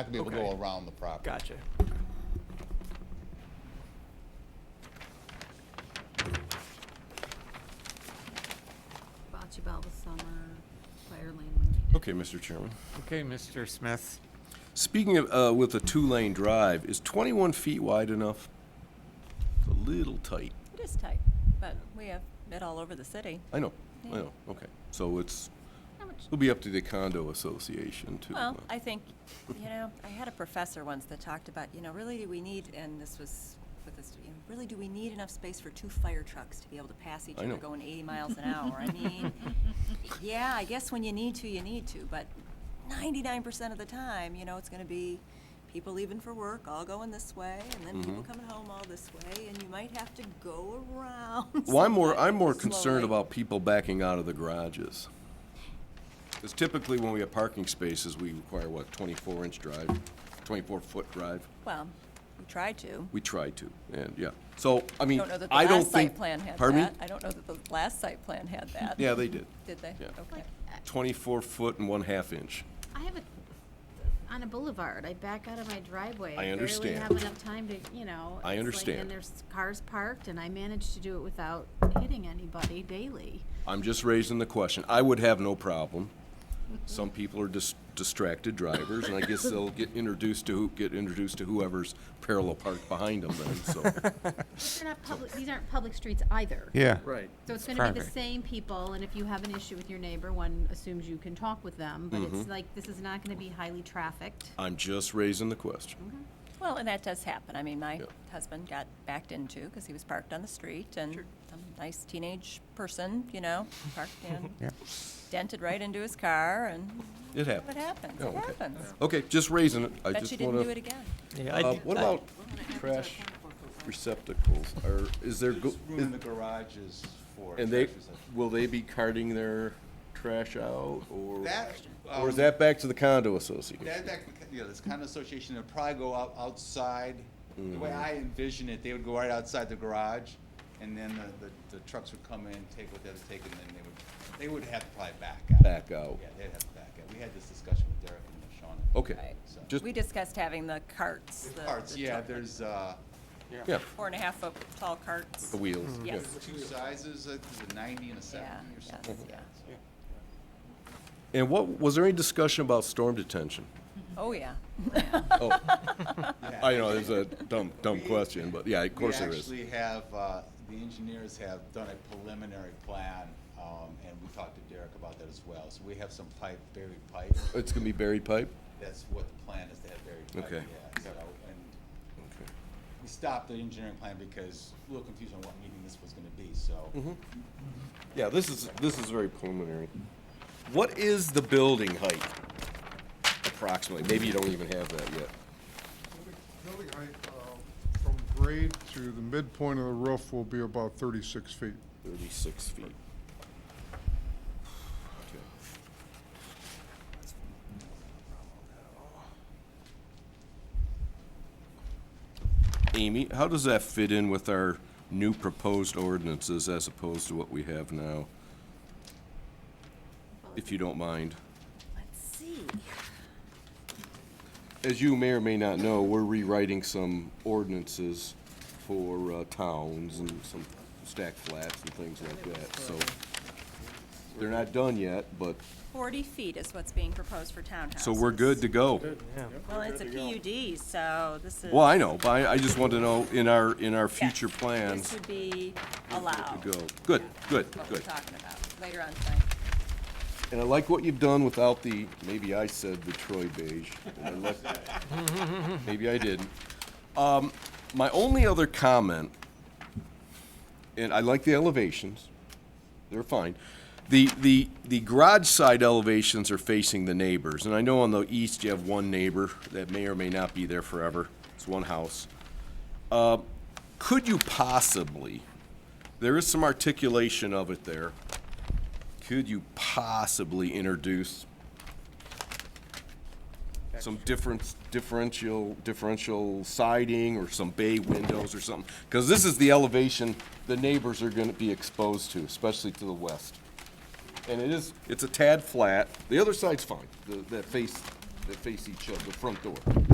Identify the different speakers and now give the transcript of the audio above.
Speaker 1: Not gonna be able to go
Speaker 2: Okay.
Speaker 1: around the property.
Speaker 2: Gotcha.
Speaker 3: Bocce Ball Summer, Fire Lane.
Speaker 4: Okay, Mr. Chairman.
Speaker 2: Okay, Mr. Smith.
Speaker 4: Speaking of, uh, with a two-lane drive, is 21 feet wide enough? It's a little tight.
Speaker 5: It is tight, but we have it all over the city.
Speaker 4: I know, I know, okay. So it's,
Speaker 5: How much?
Speaker 4: it'll be up to the condo association to.
Speaker 5: Well,
Speaker 4: uh,
Speaker 5: I think, you know, I had a professor once that talked about, you know, really do we need, and this was with this, you know, really do we need enough space for two fire trucks to be able to pass each
Speaker 4: I
Speaker 5: other
Speaker 4: know.
Speaker 5: going 80 miles an hour? I mean, yeah, I guess when you need to, you need to, but 99% of the time, you know, it's going to be people leaving for work, all going this way, and then people
Speaker 4: Mhm.
Speaker 5: coming home all this way, and you might have to go around.
Speaker 4: Well, I'm more,
Speaker 5: sometimes
Speaker 4: I'm more concerned
Speaker 5: slowly.
Speaker 4: about people backing out of the garages. Because typically when we have parking spaces, we require, what, 24-inch drive, 24-foot drive?
Speaker 5: Well, we tried to.
Speaker 4: We try to, and, yeah. So, I mean,
Speaker 5: don't know that the
Speaker 4: I don't
Speaker 5: last
Speaker 4: think.
Speaker 5: site plan had
Speaker 4: Pardon me?
Speaker 5: that. I don't know that the last site plan had that.
Speaker 4: Yeah, they did.
Speaker 5: Did they?
Speaker 4: Yeah.
Speaker 5: Okay.
Speaker 4: 24 foot and one half inch.
Speaker 3: I have a, on a boulevard, I back out of my driveway.
Speaker 4: understand.
Speaker 3: barely have enough time to, you know.
Speaker 4: I
Speaker 3: it's like-
Speaker 4: understand.
Speaker 3: And there's cars parked, and I manage to do it without hitting anybody daily.
Speaker 4: I'm just raising the question. I would have no problem. Some people are dis- distracted drivers, and I guess they'll get introduced to, who- get introduced to whoever's parallel parked behind them then, so.
Speaker 3: They're not public, these aren't public streets either.
Speaker 2: Yeah.
Speaker 4: Right.
Speaker 3: So it's gonna be the
Speaker 2: Private.
Speaker 3: same people, and if you have an issue with your neighbor, one assumes you can talk with them, but it's
Speaker 4: Mm-hmm.
Speaker 3: like, this is not gonna be highly trafficked.
Speaker 4: I'm just raising the question.
Speaker 5: Well, and that does happen. I mean, my
Speaker 4: Yeah.
Speaker 5: husband got backed into because he was parked on the street and some nice teenage person, you know, parked in, dented right into his car and
Speaker 4: It
Speaker 5: what
Speaker 4: happens.
Speaker 5: happens?
Speaker 4: Oh,
Speaker 5: It
Speaker 4: okay.
Speaker 5: happens.
Speaker 4: Okay, just raising it. I
Speaker 5: Bet you
Speaker 4: just
Speaker 5: didn't
Speaker 4: wanna.
Speaker 5: do it again.
Speaker 2: Yeah, I
Speaker 4: Uh,
Speaker 2: did-
Speaker 4: what
Speaker 2: I-
Speaker 4: about trash receptacles? Or is there, go-
Speaker 6: There's room in the garages for.
Speaker 4: and they,
Speaker 6: trash receptacles.
Speaker 4: will they be carting their trash out, or?
Speaker 6: That,
Speaker 4: Or is
Speaker 6: um,
Speaker 4: that back to the condo association?
Speaker 6: That, that, yeah, this condo association, would probably go out, outside. The way
Speaker 4: Mm.
Speaker 6: I envision it, they would go right outside the garage, and then the, the, the trucks would come in, take what they had to take, and then they would, they would have to probably back out.
Speaker 4: Back out. Oh.
Speaker 6: Yeah, they'd have to back out. We had this discussion with Derek and Sean.
Speaker 4: Okay,
Speaker 5: Right.
Speaker 6: So-
Speaker 4: just,
Speaker 5: We discussed having the carts.
Speaker 6: The
Speaker 5: the-
Speaker 6: carts,
Speaker 5: the
Speaker 6: yeah,
Speaker 5: truck-
Speaker 6: there's, uh,
Speaker 4: yeah,
Speaker 5: Four and a half foot tall carts.
Speaker 4: the wheels. yeah.
Speaker 5: Yes.
Speaker 6: two sizes, I think there's a ninety and a
Speaker 5: Yeah,
Speaker 6: seventy or
Speaker 5: yes,
Speaker 6: something.
Speaker 5: yeah.
Speaker 4: And what, was there any discussion about storm detention?
Speaker 5: Oh, yeah.
Speaker 4: Oh,
Speaker 6: Yeah.
Speaker 4: I know, it's a dumb, dumb question, but yeah, of course there is.
Speaker 6: We actually have, uh, the engineers have done a preliminary plan, um, and we talked to Derek about that as well. So we have some pipe, buried pipe.
Speaker 4: It's gonna be buried pipe?
Speaker 6: That's what the plan is to have buried pipe.
Speaker 4: Okay.
Speaker 6: Yeah, so, and we stopped the engineering plan because a little confused on what meeting this was gonna be, so.
Speaker 4: Mm-hmm. Yeah, this is, this is very preliminary. What is the building height approximately? Maybe you don't even have that yet.
Speaker 7: Building height uh, from grade to the midpoint of the roof will be about 36 feet.
Speaker 4: Thirty-six feet. Okay. Amy, how does that fit in with our new proposed ordinances as opposed to what we have now? If you don't mind.
Speaker 3: Let's see.
Speaker 4: As you may or may not know, we're rewriting some ordinances for uh, towns and some stack flats and things like that, so. They're not done yet, but,
Speaker 5: Forty feet is what's being proposed for townhouses.
Speaker 4: so we're good to go.
Speaker 5: Well, it's a PUD, so this is.
Speaker 4: Well, I know, but I, I just want to know in our, in our future
Speaker 5: Yes,
Speaker 4: plans,
Speaker 5: This would be
Speaker 4: to
Speaker 5: allowed.
Speaker 4: go. Good, good,
Speaker 5: What we're
Speaker 4: good.
Speaker 5: talking about later on tonight.
Speaker 4: And I like what you've done without the, maybe I said the Troy beige. and I like- Maybe I didn't. Um, my only other comment, and I like the elevations, they're fine. The, the, the garage side elevations are facing the neighbors, and I know on the east you have one neighbor that may or may not be there forever. It's one house. Uh, could you possibly, there is some articulation of it there could you possibly introduce some difference, differential, differential siding or some bay windows or something? Because this is the elevation the neighbors are gonna be exposed to, especially to the west. And it is, it's a tad flat. The other side's fine, the, that face, that face each other, the front door.